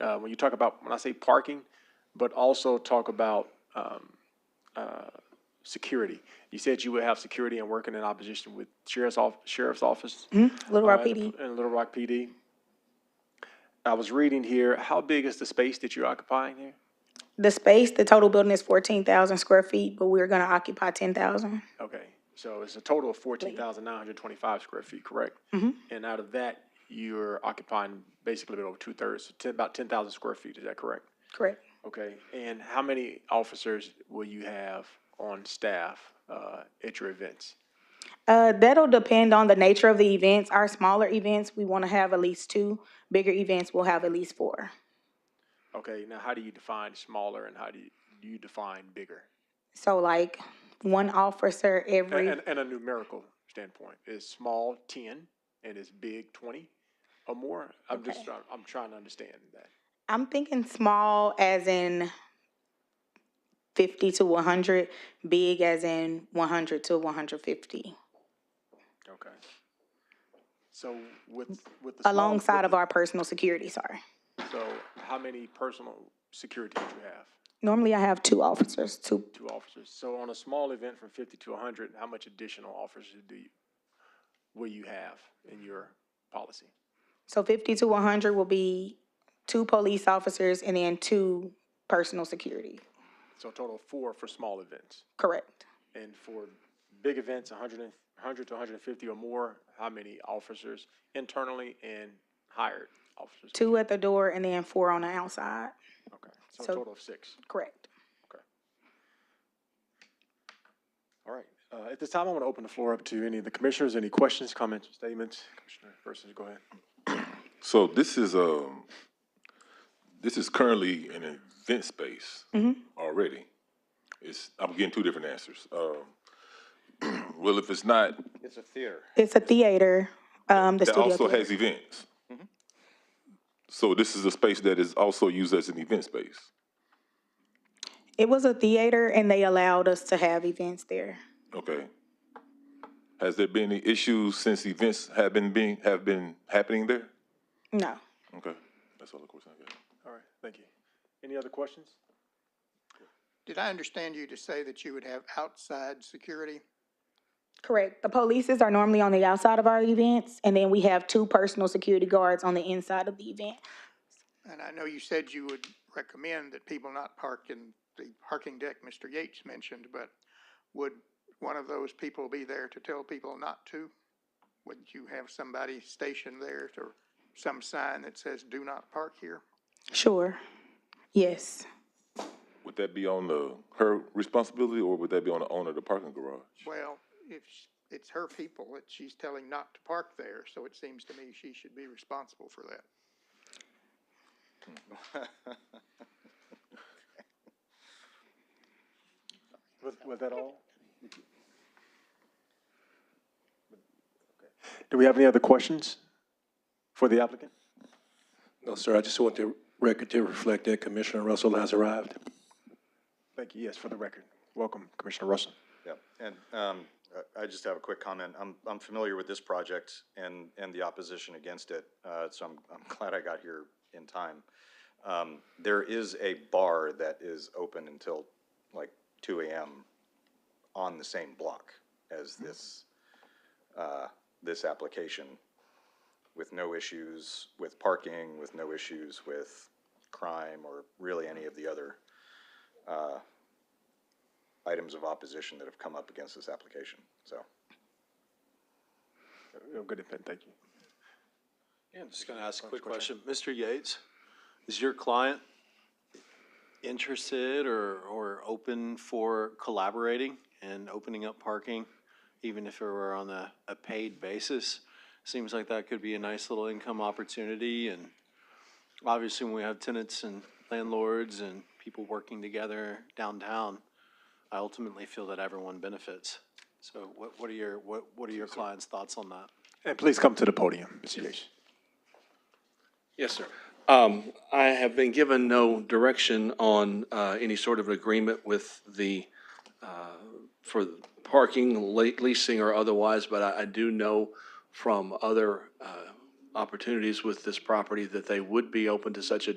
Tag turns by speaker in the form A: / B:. A: uh, when you talk about, when I say parking, but also talk about um, uh, security. You said you would have security and working in opposition with sheriff's off, sheriff's office.
B: Little
A: uh,
B: Rock
A: and the-
B: PD.
A: And Little Rock PD. I was reading here, how big is the space that you're occupying here?
B: The space, the total building is fourteen thousand square feet, but we're gonna occupy ten thousand.
A: Okay, so it's a total of fourteen thousand nine hundred twenty-five square feet, correct? And out of that, you're occupying basically a little over two-thirds, so ten- about ten thousand square feet, is that correct?
B: Correct.
A: Okay, and how many officers will you have on staff uh, at your events?
B: Uh, that'll depend on the nature of the events. Our smaller events, we wanna have at least two. Bigger events, we'll have at least four.
A: Okay, now how do you define smaller and how do you, do you define bigger?
B: So like, one officer every.
A: And, and a numerical standpoint, is small ten and is big twenty or more? I'm just, trying- I'm trying to understand that.
B: I'm thinking small as in fifty to one hundred, big as in one hundred to one hundred fifty,
A: Okay. So with, with the. small-
B: alongside
A: with
B: of our personal security, sorry.
A: the- So how many personal security did you have?
B: Normally I have two officers, two,
A: Two officers. So on a small event from fifty to hundred, how much additional officers do you, will you have in your policy?
B: so fifty to one hundred will be two police officers and then two personal security,
A: So a total of four for small events.
B: correct?
A: And for big events, hundred and, hundred to hundred and fifty or more, how many officers internally and hired officers?
B: Two at the door and then four on the outside,
A: Okay, so a
B: so-
A: total of six.
B: correct?
A: All right, uh, at this time, I want to open the floor up to any of the commissioners, any questions, comments, statements? Commissioner Persons, go ahead.
C: So this is, um, this is currently an event space already. It's, I'm getting two different answers. Um, well, if it's not,
D: It's a theater.
B: It's a theater, um, the
C: that
B: studio.
C: also
B: theater.
C: has events. So this is a space that is also used as an event space.
B: It was a theater and they allowed us to have events there.
C: Okay. Has there been any issues since events have been being, have been happening there?
B: No.
C: Okay, that's all the question I got.
A: All right, thank you. Any other questions?
E: Did I understand you to say that you would have outside security?
B: Correct. The polices are normally on the outside of our events, and then we have two personal security guards on the inside of the event.
E: And I know you said you would recommend that people not park in the parking deck Mr. Yates mentioned, but would one of those people be there to tell people not to? Would you have somebody stationed there to, some sign that says, do not park here?
B: Sure. Yes.
C: Would that be on the, her responsibility or would that be on the owner of the parking garage?
E: Well, if sh- it's her people that she's telling not to park there, so it seems to me she should be responsible for that.
A: Was, was that all? Do we have any other questions for the applicant?
F: No, sir, I just want the record to reflect that Commissioner Russell has arrived.
A: Thank you, yes, for the record. Welcome, Commissioner Russell.
D: Yep, and um, I I just have a quick comment. I'm, I'm familiar with this project and, and the opposition against it, uh, so I'm, I'm glad I got here in time. Um, There is a bar that is open until like two AM on the same block as this, uh, this application, with no issues with parking, with no issues with crime, or really any of the other uh, items of opposition that have come up against this application, so.
A: Uh, Good, input, thank you.
G: Yeah, I'm just gonna ask a quick question. Mr. Yates, is your client interested or, or open for collaborating and opening up parking, even if it were on a, a paid basis? Seems like that could be a nice little income opportunity, and obviously, when we have tenants and landlords and people working together downtown, I ultimately feel that everyone benefits. So what, what are your, what, what are your client's thoughts on that?
A: And please come to the podium, Mr. Yates.
H: Yes, sir. Um, I have been given no direction on, uh, any sort of agreement with the, uh, for parking, late leasing or otherwise, but I, I do know from other, uh, opportunities with this property that they would be open to such a